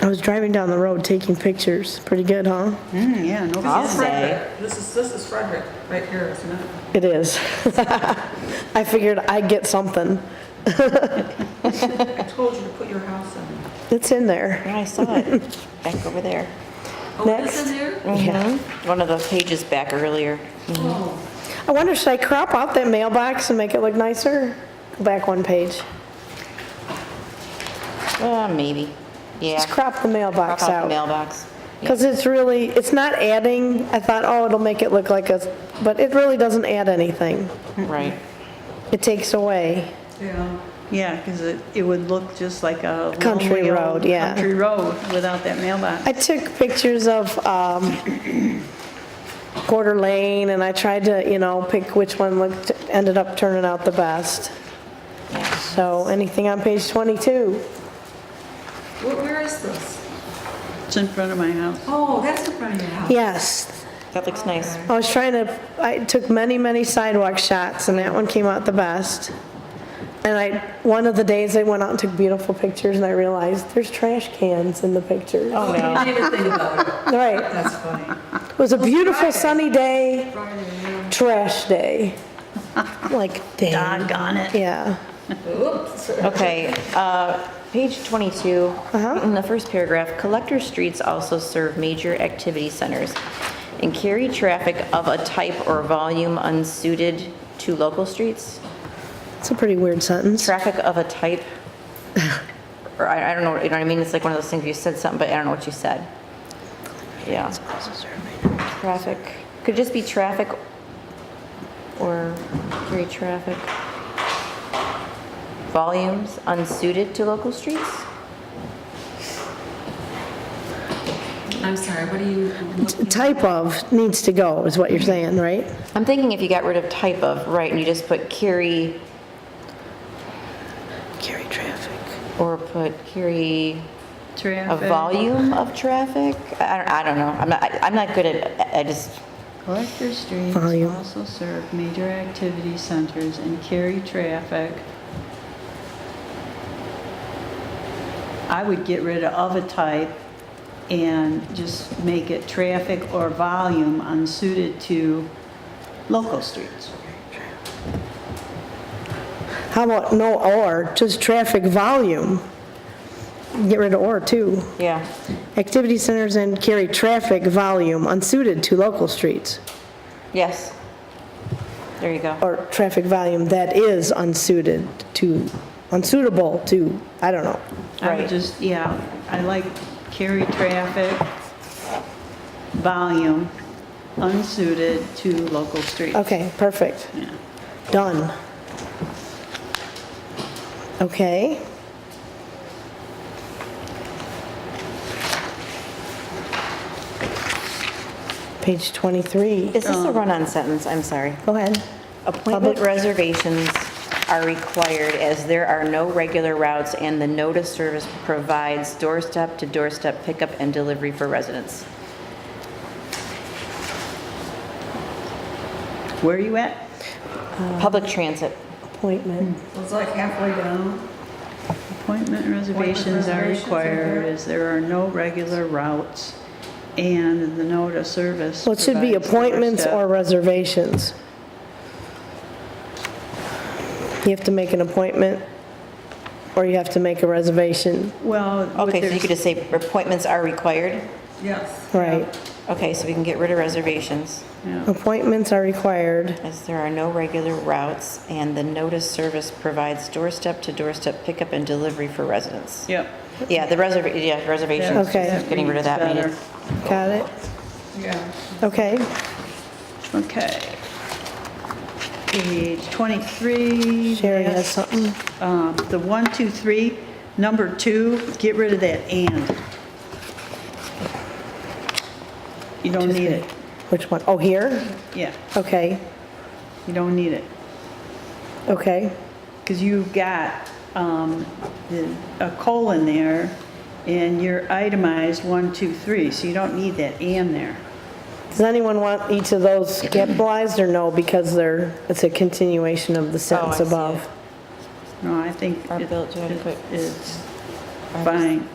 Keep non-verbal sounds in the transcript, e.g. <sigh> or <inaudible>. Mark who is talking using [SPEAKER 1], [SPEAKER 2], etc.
[SPEAKER 1] I was driving down the road taking pictures. Pretty good, huh?
[SPEAKER 2] Mm, Yeah, no,
[SPEAKER 3] I'll
[SPEAKER 2] problem.
[SPEAKER 3] say,
[SPEAKER 4] This is, this is Frederick, right here, isn't it?
[SPEAKER 1] It is. <laughs> I figured I'd get something.
[SPEAKER 4] I told you to put your house in.
[SPEAKER 1] It's in there.
[SPEAKER 3] yeah, I saw it, back over there.
[SPEAKER 4] Oh, this is in there?
[SPEAKER 3] Yeah. One of the pages back earlier.
[SPEAKER 4] Oh,
[SPEAKER 1] I wonder, should I crop out that mailbox and make it look nicer? Go back one page.
[SPEAKER 3] Uh, maybe, yeah.
[SPEAKER 1] Just crop the
[SPEAKER 3] Crop
[SPEAKER 1] mailbox
[SPEAKER 3] out the
[SPEAKER 1] out.
[SPEAKER 3] mailbox. Yeah.
[SPEAKER 1] Because it's really, it's not adding, I thought, oh, it'll make it look like a, but it really doesn't add anything.
[SPEAKER 3] Right.
[SPEAKER 1] It takes away.
[SPEAKER 4] yeah.
[SPEAKER 2] Yeah, because it, it would look just like a.
[SPEAKER 1] Country
[SPEAKER 2] lonely old
[SPEAKER 1] road, yeah.
[SPEAKER 2] Country road without that mailbox.
[SPEAKER 1] I took pictures of um, Quarter Lane, and I tried to, you know, pick which one looked, ended up turning out the best. So anything on page 22?
[SPEAKER 4] Where, where is this?
[SPEAKER 2] It's in front of my house.
[SPEAKER 4] Oh, that's in front of your house.
[SPEAKER 1] Yes.
[SPEAKER 3] That looks nice.
[SPEAKER 1] I was trying to, I took many, many sidewalk shots, and that one came out the best. And I, one of the days, I went out and took beautiful pictures, and I realized there's trash cans in the pictures.
[SPEAKER 3] Oh,
[SPEAKER 4] I
[SPEAKER 3] no.
[SPEAKER 4] didn't even think about it.
[SPEAKER 1] Right.
[SPEAKER 4] That's funny.
[SPEAKER 1] It was a beautiful sunny day,
[SPEAKER 4] Friday, yeah.
[SPEAKER 1] trash day. Like, dang.
[SPEAKER 2] Doggone it.
[SPEAKER 1] Yeah.
[SPEAKER 4] Oops.
[SPEAKER 3] Okay, uh, page 22, in the first paragraph, collector streets also serve major activity centers and carry traffic of a type or volume unsuited to local streets.
[SPEAKER 1] It's a pretty weird sentence.
[SPEAKER 3] Traffic of a type, or I I don't know, you know what I mean? It's like one of those things, you said something, but I don't know what you said. Yeah. Traffic, could just be traffic or carry traffic. Volumes unsuited to local streets?
[SPEAKER 4] I'm sorry, what are you?
[SPEAKER 1] Type of needs to go, is what you're saying, right?
[SPEAKER 3] I'm thinking if you got rid of type of, right, and you just put carry
[SPEAKER 1] Carry traffic.
[SPEAKER 3] or put carry a
[SPEAKER 2] Traffic.
[SPEAKER 3] volume of traffic? I don't, I don't know. I'm not, I- I'm not good at, I just,
[SPEAKER 2] Collector streets
[SPEAKER 1] Volume.
[SPEAKER 2] also serve major activity centers and carry traffic. I would get rid of a type and just make it traffic or volume unsuited to local streets.
[SPEAKER 1] How about no or, just traffic volume? Get rid of or too.
[SPEAKER 3] yeah.
[SPEAKER 1] Activity centers and carry traffic volume unsuited to local streets,
[SPEAKER 3] Yes. There you go.
[SPEAKER 1] or traffic volume that is unsuited to, unsuitable to, I don't know.
[SPEAKER 2] I
[SPEAKER 3] Right.
[SPEAKER 2] would just, yeah, I like carry traffic, volume, unsuited to local streets.
[SPEAKER 1] Okay, perfect. Done. Okay. Page 23.
[SPEAKER 3] Is this a run-on sentence? I'm sorry.
[SPEAKER 1] Go ahead.
[SPEAKER 3] Um, Appointment reservations are required as there are no regular routes and the notice service provides doorstep-to-doorstep pickup and delivery for residents.
[SPEAKER 2] Where are you at?
[SPEAKER 3] Public transit.
[SPEAKER 1] Appointment.
[SPEAKER 4] It's like halfway down.
[SPEAKER 2] Appointment reservations are
[SPEAKER 4] reservations are
[SPEAKER 2] required
[SPEAKER 4] there.
[SPEAKER 2] as there are no regular routes and the note of service.
[SPEAKER 1] Well, it should be
[SPEAKER 2] provides
[SPEAKER 1] appointments or
[SPEAKER 2] doorstep-
[SPEAKER 1] reservations. You have to make an appointment, or you have to make a reservation,
[SPEAKER 2] Well. what
[SPEAKER 3] Okay, so you
[SPEAKER 2] there's-
[SPEAKER 3] could just say appointments are required?
[SPEAKER 4] Yes.
[SPEAKER 1] right?
[SPEAKER 3] Okay, so we can get rid of reservations,
[SPEAKER 2] yeah.
[SPEAKER 1] Appointments are required.
[SPEAKER 3] as there are no regular routes, and the notice service provides doorstep-to-doorstep pickup and delivery for residents.
[SPEAKER 2] Yep.
[SPEAKER 3] Yeah, the reserv, yeah, reservations,
[SPEAKER 1] Okay.
[SPEAKER 3] getting rid of that.
[SPEAKER 2] Reads
[SPEAKER 3] maybe.
[SPEAKER 1] Got it?
[SPEAKER 4] Yeah.
[SPEAKER 1] Okay.
[SPEAKER 2] better. Okay. Page 23.
[SPEAKER 1] Sherry has
[SPEAKER 2] that's,
[SPEAKER 1] something.
[SPEAKER 2] um, The one, two, three, number two, get rid of that and. You don't need it.
[SPEAKER 1] Which one? Oh, here?
[SPEAKER 2] Yeah,
[SPEAKER 1] Okay,
[SPEAKER 2] you don't need it.
[SPEAKER 1] okay.
[SPEAKER 2] Because you've got um, the- a colon there, and you're itemized one, two, three, so you don't need that "and" there.
[SPEAKER 1] Does anyone want each of those capitalized or no, because they're, it's a continuation of the sentence
[SPEAKER 3] see it.
[SPEAKER 1] above?
[SPEAKER 2] No, I think
[SPEAKER 3] Or
[SPEAKER 2] it-
[SPEAKER 3] built to a
[SPEAKER 2] it-
[SPEAKER 3] quick-
[SPEAKER 2] it's fine.